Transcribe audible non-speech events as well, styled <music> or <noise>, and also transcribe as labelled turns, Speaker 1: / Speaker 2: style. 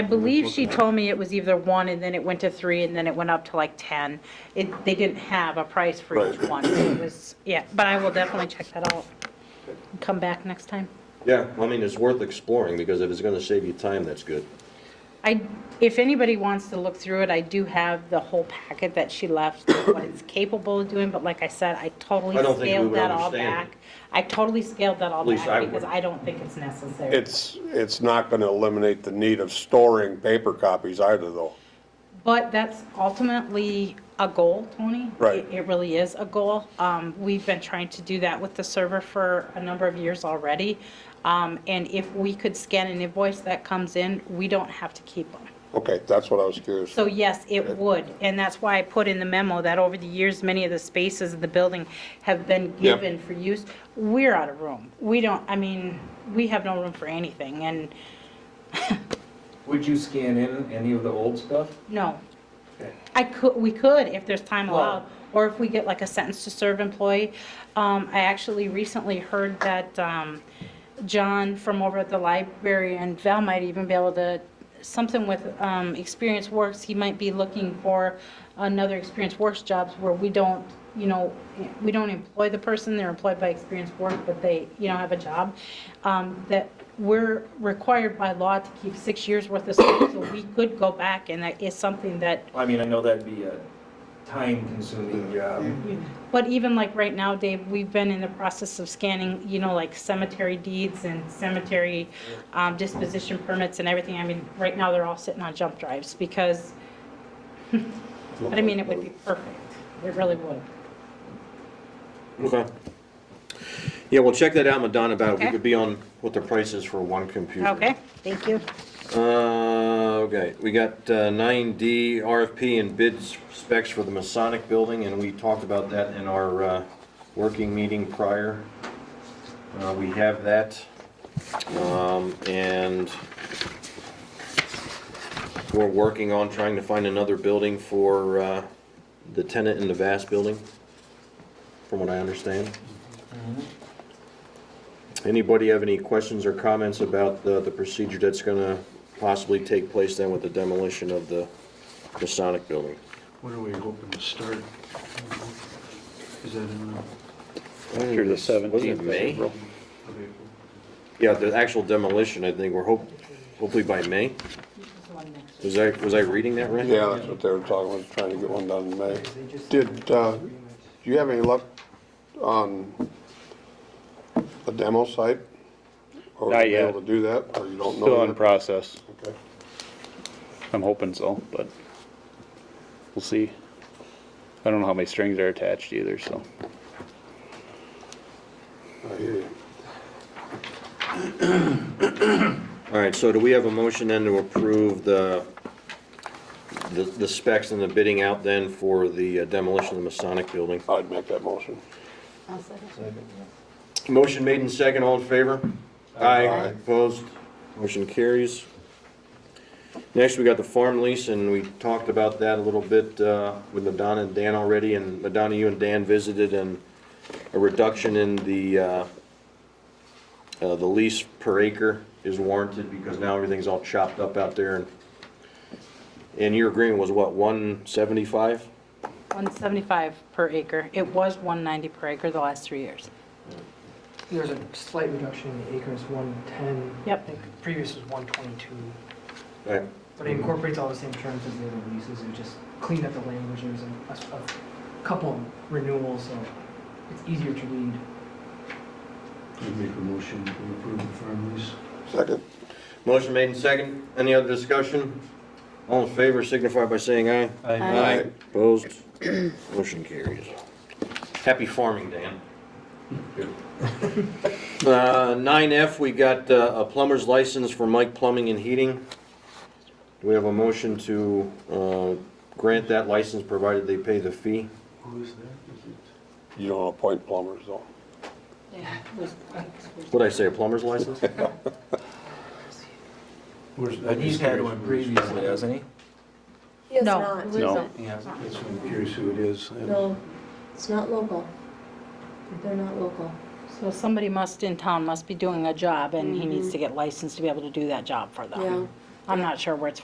Speaker 1: I believe she told me it was either one, and then it went to three, and then it went up to like 10. It, they didn't have a price for each
Speaker 2: Right.
Speaker 1: one, so it was, yeah, but I will definitely check that out. Come back next time.
Speaker 3: Yeah, I mean, it's worth exploring, because if it's gonna save you time, that's good.
Speaker 1: I, if anybody wants to look through it, I do have the whole packet that she left, what it's capable of doing, but like I said, I totally
Speaker 3: I don't think we
Speaker 1: scaled
Speaker 3: would
Speaker 1: that all
Speaker 3: understand it.
Speaker 1: back. I totally scaled that all
Speaker 3: At least I
Speaker 1: back because
Speaker 3: wouldn't.
Speaker 1: I don't think it's necessary.
Speaker 2: It's, it's not gonna eliminate the need of storing paper copies either, though.
Speaker 1: But that's ultimately a goal, Tony.
Speaker 2: Right.
Speaker 1: It- It really is a goal. Um, We've been trying to do that with the server for a number of years already. Um, And if we could scan an invoice that comes in, we don't have to keep them.
Speaker 2: Okay, that's what I was curious.
Speaker 1: So yes, it would, and that's why I put in the memo that over the years, many of the spaces in the building have been
Speaker 2: Yep.
Speaker 1: given for use. We're out of room. We don't, I mean, we have no room for anything, and
Speaker 4: Would you scan in any of the old stuff?
Speaker 1: no.
Speaker 4: Okay.
Speaker 1: I could, we could, if there's time
Speaker 4: Well-
Speaker 1: allowed, or if we get like a sentence to serve employee. Um, I actually recently heard that, um, John from over at the library and Val might even be able to, something with, um, Experience Works, he might be looking for another Experience Works jobs where we don't, you know, we don't employ the person, they're employed by Experience Work, but they, you know, have a job. Um, that we're required by law to keep six years worth of service, so we could go back and that is something that
Speaker 4: I mean, I know that'd be a time-consuming job.
Speaker 1: But even like right now, Dave, we've been in the process of scanning, you know, like cemetery deeds and cemetery um, disposition permits and everything. I mean, right now, they're all sitting on jump drives because, <laughs> but I mean, it would be perfect. It really would.
Speaker 3: Okay. Yeah, well, check that out, Madonna, about if we
Speaker 1: Okay.
Speaker 3: could be on what the price is for one computer.
Speaker 1: Okay, thank you.
Speaker 3: Uh, okay, we got nine D RFP and bid specs for the Masonic Building, and we talked about that in our uh, working meeting prior. Uh, We have that, Um, and we're working on trying to find another building for uh, the tenant in the Vast Building, from what I understand. Anybody have any questions or comments about the, the procedure that's gonna possibly take place then with the demolition of the Masonic building?
Speaker 5: When are we hoping to start? Is that in uh, the, of
Speaker 6: Through the
Speaker 3: Was it
Speaker 6: 17th of
Speaker 3: May?
Speaker 6: April.
Speaker 5: April?
Speaker 3: Yeah, the actual demolition, I think, we're hope, hopefully by May. Was I, was I reading that right?
Speaker 2: Yeah, that's what they were talking about, trying to get one done in May. Did, uh, do you have any luck on the demo site? Or were
Speaker 6: Not
Speaker 2: you
Speaker 6: yet.
Speaker 2: Able to do that, or you don't know?
Speaker 6: Still in
Speaker 2: yet?
Speaker 6: process.
Speaker 2: Okay.
Speaker 6: I'm hoping so, but we'll see. I don't know how many strings are attached either, so.
Speaker 2: I hear you.
Speaker 3: All right, so do we have a motion then to approve the, the the specs and the bidding out then for the uh, demolition of the Masonic building?
Speaker 2: I'd make that motion.
Speaker 3: Motion made in second, all in favor? Aye. Opposed? Motion carries. Next, we got the farm lease, and we talked about that a little bit uh, with Madonna and Dan already, and Madonna, you and Dan visited, and a reduction in the, uh, uh, the lease per acre is warranted, because now everything's all chopped up out there, and, and your agreement was what, 175?
Speaker 1: 175 per acre. It was 190 per acre the last three years.
Speaker 7: There's a slight reduction in the acres, 110.
Speaker 1: Yep.
Speaker 7: I think previous was 122,
Speaker 3: Right.
Speaker 7: but it incorporates all the same terms as the other leases, we just cleaned up the language, there's a, a- a couple renewals, so it's easier to read.
Speaker 5: I make a motion to approve the farm lease.
Speaker 2: Second.
Speaker 3: Motion made in second. Any other discussion? All in favor signify by saying aye.
Speaker 1: Aye.
Speaker 3: Opposed? Motion carries. Happy farming, Dan. <laughs> Uh, 9F, we got uh, a plumber's license for Mike Plumbing and Heating. Do we have a motion to uh, grant that license provided they pay the fee?
Speaker 5: Who is that? Is it-
Speaker 2: You don't appoint plumbers, though.
Speaker 3: What'd I say, a plumber's license?
Speaker 5: Where's?
Speaker 4: But he's had one previously, hasn't he?
Speaker 8: He has
Speaker 1: No.
Speaker 8: not.
Speaker 6: No.
Speaker 4: Yeah.
Speaker 5: That's why I'm curious who it is.
Speaker 8: No, it's not local. They're not local.
Speaker 1: So Mm-hmm. somebody must, in town, must be doing a job, and he needs to get licensed to be able to do that job for them.
Speaker 8: Yeah.
Speaker 1: I'm not sure where it's